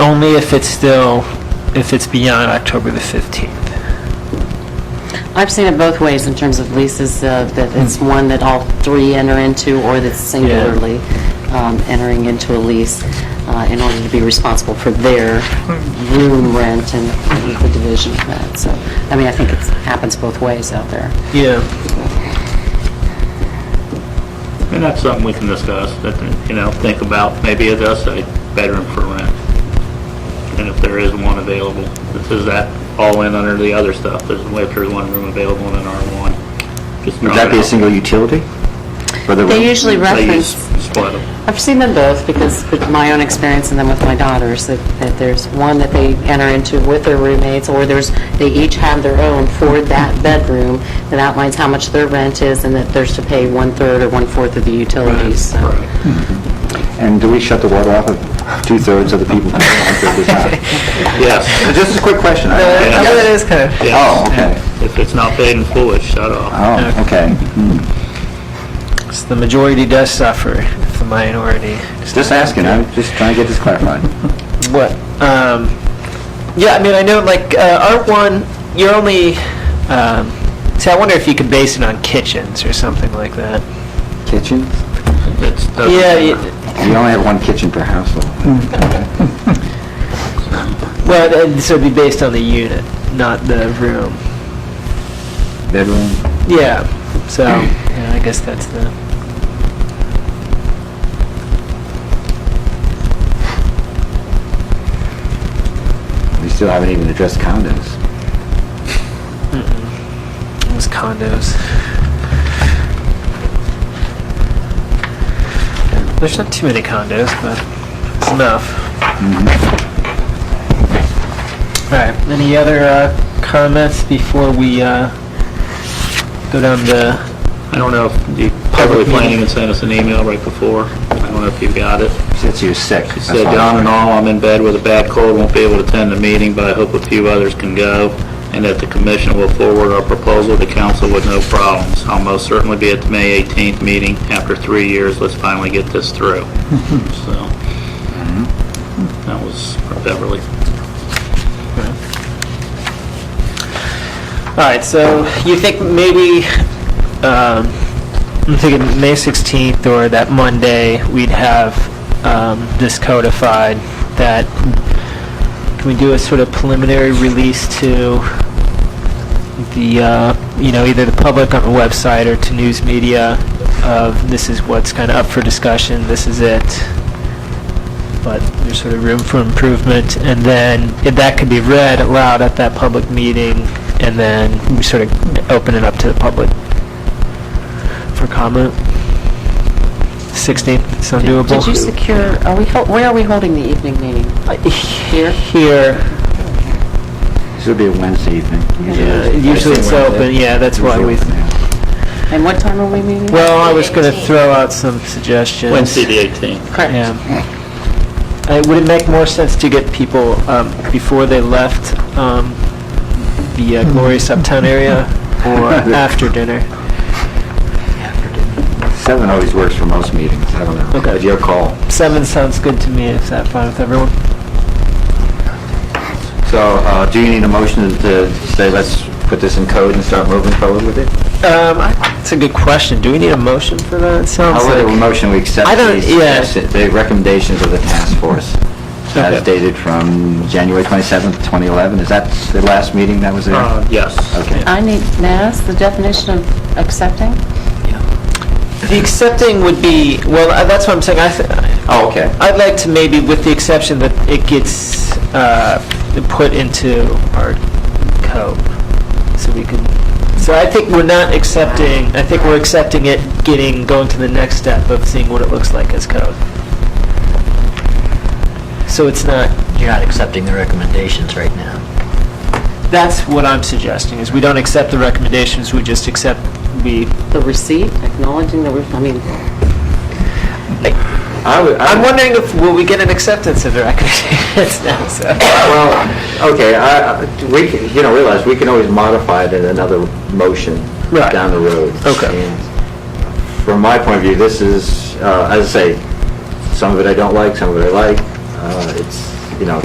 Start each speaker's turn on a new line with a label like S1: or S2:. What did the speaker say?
S1: Only if it's still, if it's beyond October the 15th.
S2: I've seen it both ways in terms of leases, uh, that it's one that all three enter into, or that's singularly um, entering into a lease uh, in order to be responsible for their room rent and the division of that. So, I mean, I think it happens both ways out there.
S1: Yeah.
S3: And that's something we can discuss, that, you know, think about, maybe it does say bedroom for rent. And if there is one available, this is that all in under the other stuff, there's, if there's one room available in an R1. just
S4: Would
S3: drop
S4: that
S3: it
S4: be a
S3: out.
S4: single utility? For the
S2: They
S4: room?
S2: usually
S3: They
S2: reference...
S3: use- split 'em.
S2: I've seen them both because with my own experience and then with my daughters, that, that there's one that they enter into with their roommates or there's, they each have their own for that bedroom that outlines how much their rent is and that there's to pay one-third or one-fourth of the utilities. So,
S4: And do we shut the water off if two-thirds of the people? come in?
S3: Yes,
S4: Just a quick question. I don't care.
S3: no, it
S1: is kind of.
S4: Oh, okay.
S3: if it's not paid in full, it's shut off.
S4: Oh, okay.
S1: The majority does suffer, if the minority.
S4: Just asking, I'm just trying to get this clarified.
S1: What? Um, yeah, I mean, I know, like, uh, R1, you're only, um, see, I wonder if you could base it on kitchens or something like that.
S4: Kitchen?
S3: It's, doesn't
S1: Yeah,
S3: matter.
S1: y-
S4: We only have one kitchen per household.
S1: Well, and so it'd be based on the unit, not the room.
S4: Bedroom?
S1: Yeah, so, yeah, I guess that's the,
S4: We still haven't even addressed condos.
S1: it was condos. There's not too many condos, but it's enough. All right, any other uh, comments before we uh, go down the
S3: I don't know if you, probably planning and sent us an email right before, I don't know if you got it.
S4: Since you're sick.
S3: She
S4: that's
S3: said, um,
S4: all.
S3: "John and all, I'm in bed with a bad cold, won't be able to attend the meeting, but I hope a few others can go, and that the commission will forward our proposal to council with no problems. I'll most certainly be at the May 18th meeting. After three years, let's finally get this through." So, that was from Beverly.
S1: All right, so you think maybe, um, I'm thinking May 16th or that Monday, we'd have um, this codified, that, can we do a sort of preliminary release to the, uh, you know, either the public on the website or to news media of this is what's kind of up for discussion, this is it, but there's sort of room for improvement, and then if that could be read aloud at that public meeting, and then we sort of open it up to the public for comment. 16th, sound doable?
S2: Did you secure, are we, hol- where are we holding the evening meeting? Here?
S1: Here,
S4: This would be a Wednesday evening.
S1: uh, usually it's open, yeah, that's why we,
S2: And what time are we meeting?
S1: well, I was going to throw out some suggestions.
S3: Wednesday, the 18th.
S2: Correct.
S1: Yeah. Uh, Would it make more sense to get people, um, before they left um, the uh, glorious uptown area, or after dinner?
S4: Seven always works for most meetings, I don't know.
S1: Okay.
S4: But Your call.
S1: Seven sounds good to me, is that fine with everyone?
S4: So, uh, do you need a motion to say, let's put this in code and start moving forward with it?
S1: Um, I- It's a good question, do we need a motion for that? It sounds
S4: How would a
S1: like,
S4: motion we accept
S1: I don't-
S4: these-
S1: yeah.
S4: the recommendations of the task force as
S1: Okay.
S4: dated from January 27th, 2011? Is that the last meeting that was there?
S3: Uh, Yes.
S4: Okay.
S2: I need, now, that's the definition of accepting?
S1: the accepting would be, well, uh, that's what I'm saying, I, th-
S4: Oh, okay.
S1: I'd like to maybe, with the exception that it gets uh, put into our code, so we can, so I think we're not accepting, I think we're accepting it, getting, going to the next step of seeing what it looks like as code. So it's not,
S5: You're not accepting the recommendations right now.
S1: that's what I'm suggesting, is we don't accept the recommendations, we just accept, we,
S2: The receipt, acknowledging the, re- I mean,
S4: I would- I
S1: I'm
S4: would-
S1: wondering if, will we get an acceptance of the recommendations now, so.
S4: Well, okay, I, I- we, can- you know, realize, we can always modify it in another motion
S1: Right.
S4: down the road.
S1: Okay.
S4: And From my point of view, this is, uh, as I say, some of it I don't like, some of it I like. Uh, It's, you know,